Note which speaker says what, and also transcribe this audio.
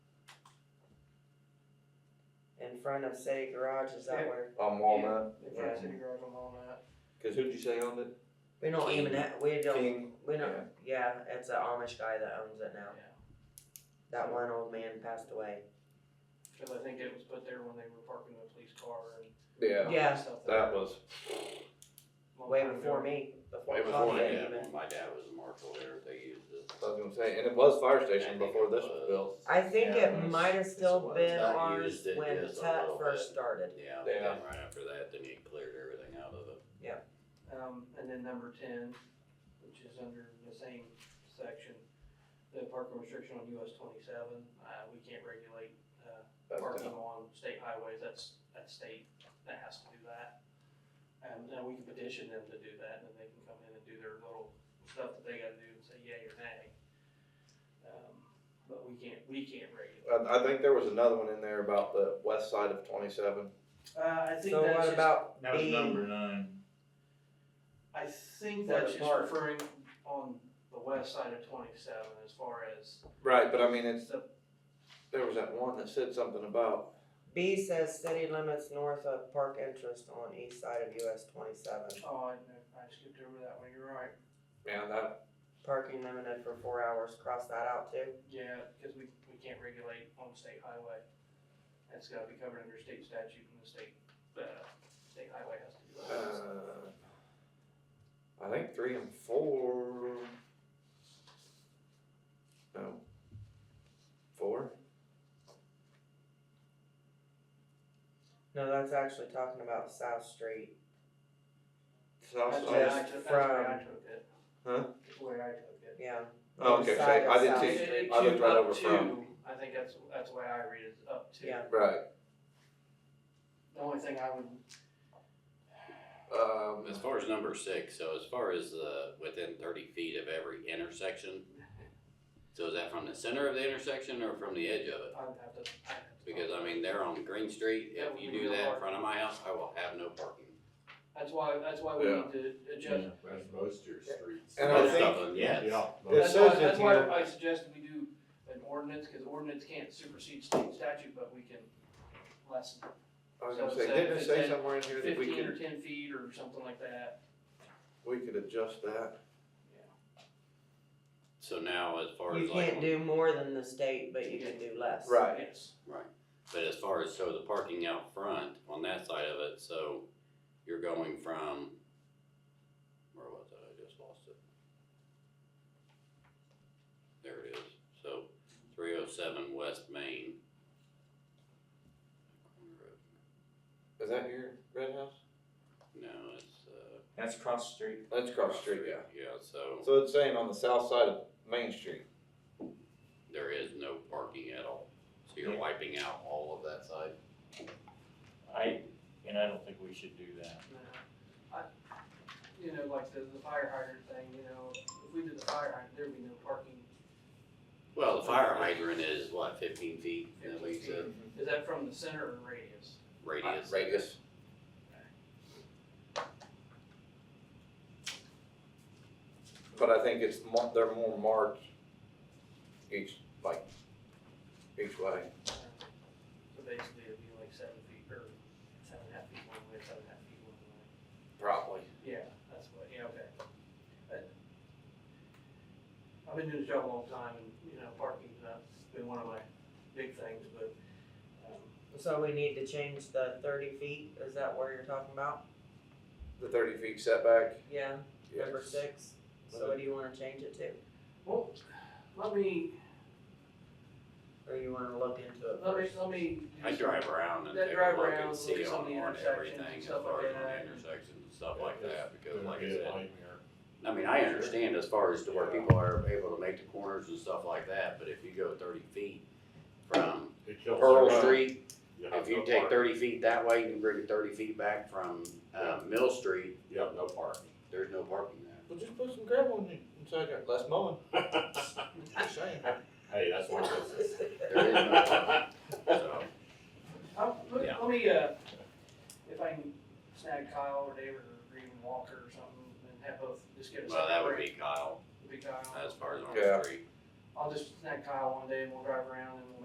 Speaker 1: front of City Garage, is that where?
Speaker 2: on Walnut,
Speaker 1: Yeah.
Speaker 3: in front of City Garage on Walnut.
Speaker 2: cause who'd you say owned it?
Speaker 1: We don't
Speaker 2: King.
Speaker 1: even have, we don't,
Speaker 2: King.
Speaker 1: we don't, yeah, it's an Amish guy that owns it now.
Speaker 3: Yeah.
Speaker 1: That one old man passed away.
Speaker 3: Cause I think it was put there when they were parking the police car and. all
Speaker 2: Yeah,
Speaker 3: that
Speaker 1: Yeah.
Speaker 3: stuff
Speaker 2: that was,
Speaker 3: Long
Speaker 1: Way
Speaker 3: time
Speaker 1: before
Speaker 3: ago.
Speaker 1: me, before
Speaker 4: Way before
Speaker 1: Costa
Speaker 4: that,
Speaker 1: even.
Speaker 4: when my dad was a marshal there, they used it.
Speaker 2: I was gonna say, and it was fire station before this was built.
Speaker 1: I think
Speaker 4: Yeah,
Speaker 1: it
Speaker 4: it's-
Speaker 1: might have still
Speaker 4: it's
Speaker 1: been
Speaker 4: not
Speaker 1: ours
Speaker 4: used, it
Speaker 1: when
Speaker 4: is a
Speaker 1: Tut
Speaker 4: little
Speaker 1: first
Speaker 4: bit.
Speaker 1: started.
Speaker 4: Yeah, but
Speaker 2: Yeah.
Speaker 4: then right after that, then he cleared everything out of it.
Speaker 3: Um, and then number ten, which is under the same section, the parking restriction on US twenty-seven, uh, we can't regulate, uh,
Speaker 2: That's
Speaker 3: parking
Speaker 2: down.
Speaker 3: on state highways, that's, that's state, that has to do that. And now we can petition them to do that, and then they can come in and do their little stuff that they gotta do and say yay or nay. Um, but we can't, we can't regulate.
Speaker 2: I, I think there was another one in there about the west side of twenty-seven.
Speaker 3: Uh, I think
Speaker 1: So
Speaker 3: that's
Speaker 1: what
Speaker 3: just,
Speaker 1: about
Speaker 5: That was
Speaker 1: B?
Speaker 5: number nine.
Speaker 3: I think
Speaker 1: For the
Speaker 3: that's just
Speaker 1: park.
Speaker 3: referring on the west side of twenty-seven as far as
Speaker 2: Right, but I mean, it's,
Speaker 3: the
Speaker 2: there was that one that said something about,
Speaker 1: B says city limits north of park interest on east side of US twenty-seven.
Speaker 3: Oh, I, I skipped over that one, you're right.
Speaker 2: man, that,
Speaker 1: Parking limited for four hours, cross that out too.
Speaker 3: Yeah, because we, we can't regulate on state highway. That's gotta be covered under state statute and the state, uh, state highway has to do that.
Speaker 2: uh, I think three and four. No. Four?
Speaker 1: No, that's actually talking about South Street.
Speaker 2: South
Speaker 3: That's the way
Speaker 2: side?
Speaker 3: I took, that's the way I took it.
Speaker 2: Huh?
Speaker 3: That's the way I took it.
Speaker 1: Yeah.
Speaker 2: Oh,
Speaker 1: North
Speaker 2: okay, so
Speaker 1: side of
Speaker 2: I didn't
Speaker 1: South
Speaker 2: see-
Speaker 1: Street.
Speaker 3: It- it
Speaker 2: I looked
Speaker 3: to
Speaker 2: right
Speaker 3: up
Speaker 2: over
Speaker 3: to,
Speaker 2: from.
Speaker 3: I think that's, that's the way I read it, is up to.
Speaker 1: Yeah.
Speaker 2: Right,
Speaker 3: The only thing I would,
Speaker 2: um,
Speaker 4: As far as number six, so as far as the, within thirty feet of every intersection, so is that from the center of the intersection or from the edge of it?
Speaker 3: I would have to. I'd have to-
Speaker 4: Because I mean, they're on Green Street, if you do that in front of my house, I will have no parking.
Speaker 3: That's why, that's why we
Speaker 2: Yeah.
Speaker 3: need to adjust,
Speaker 6: That's most of your streets.
Speaker 2: And I
Speaker 4: Most
Speaker 2: think-
Speaker 4: of them, yes.
Speaker 6: Yeah.
Speaker 2: It
Speaker 3: That's
Speaker 6: most-
Speaker 2: says
Speaker 3: why,
Speaker 2: in
Speaker 3: that's why
Speaker 2: here-
Speaker 3: I suggested we do an ordinance, cause ordinance can't supersede state statute, but we can lessen
Speaker 2: I was gonna
Speaker 3: So
Speaker 2: say,
Speaker 3: say
Speaker 2: didn't it
Speaker 3: if
Speaker 2: say
Speaker 3: it's at
Speaker 2: somewhere in here that we
Speaker 3: fifteen or
Speaker 2: could,
Speaker 3: ten feet or something like that.
Speaker 2: we could adjust that?
Speaker 4: So now as far as
Speaker 1: You
Speaker 4: like.
Speaker 1: can't do more than the state, but you can do less.
Speaker 2: Right.
Speaker 3: Yes.
Speaker 4: But as far as, so the parking out front on that side of it, so you're going from, where was it? I just lost it. There it is. So three oh seven West Main.
Speaker 2: Is that your red house?
Speaker 4: No, it's, uh.
Speaker 5: That's cross the street.
Speaker 2: That's across the street, yeah.
Speaker 4: Yeah, so
Speaker 2: So it's saying on the south side of Main Street.
Speaker 4: there is no parking at all. So you're wiping out all of that side.
Speaker 5: I, and I don't think we should do that.
Speaker 3: I, you know, like the, the fire hydrant thing, you know, if we did the fire hydrant, there'd be no parking.
Speaker 4: Well, the fire hydrant is what, fifteen feet, is that what you
Speaker 3: 15
Speaker 4: said?
Speaker 3: feet.
Speaker 2: Mm-hmm.
Speaker 3: Is that from the center or radius?
Speaker 4: Radius.
Speaker 2: Radius. But I think it's mo- they're more marked each, like, each way.
Speaker 3: So basically it'd be like seven feet or seven and a half feet one way, seven and a half feet one way.
Speaker 2: Probably.
Speaker 3: Yeah, that's what, yeah, okay. But I've been doing this job a long time and, you know, parking's not been one of my big things, but, um,
Speaker 1: So we need to change the thirty feet, is that where you're talking about?
Speaker 2: The thirty feet setback.
Speaker 1: Yeah,
Speaker 2: yeah.
Speaker 1: number six, so what do you wanna change it to?
Speaker 3: well, let me,
Speaker 1: Or you wanna look into it
Speaker 3: let me,
Speaker 1: first?
Speaker 3: let me. do
Speaker 4: I
Speaker 3: some-
Speaker 4: drive around and
Speaker 3: That
Speaker 4: take
Speaker 3: drive
Speaker 4: a look
Speaker 3: around,
Speaker 4: and
Speaker 3: look
Speaker 4: see
Speaker 3: at some of
Speaker 4: on,
Speaker 3: the
Speaker 4: on
Speaker 3: intersections
Speaker 4: everything,
Speaker 3: and
Speaker 4: as
Speaker 3: stuff
Speaker 4: far
Speaker 3: like
Speaker 4: as on
Speaker 3: that.
Speaker 4: intersections and stuff like
Speaker 6: It's
Speaker 4: that, because
Speaker 6: gonna
Speaker 4: like
Speaker 6: be
Speaker 4: I
Speaker 6: a
Speaker 4: said,
Speaker 6: nightmare.
Speaker 4: I mean, I understand as far as to where people are able to make the corners and stuff like that, but if you go thirty feet from
Speaker 6: It kills
Speaker 4: Pearl
Speaker 6: everybody.
Speaker 4: Street,
Speaker 6: You have
Speaker 4: if you
Speaker 6: no
Speaker 4: take
Speaker 6: parking.
Speaker 4: thirty feet that way, you bring it thirty feet back from, uh, Mill Street,
Speaker 6: You have no parking.
Speaker 4: there's no parking there.
Speaker 2: Well, just put some gravel in, inside there, less mowing, just saying.
Speaker 6: Hey, that's my business.
Speaker 3: uh,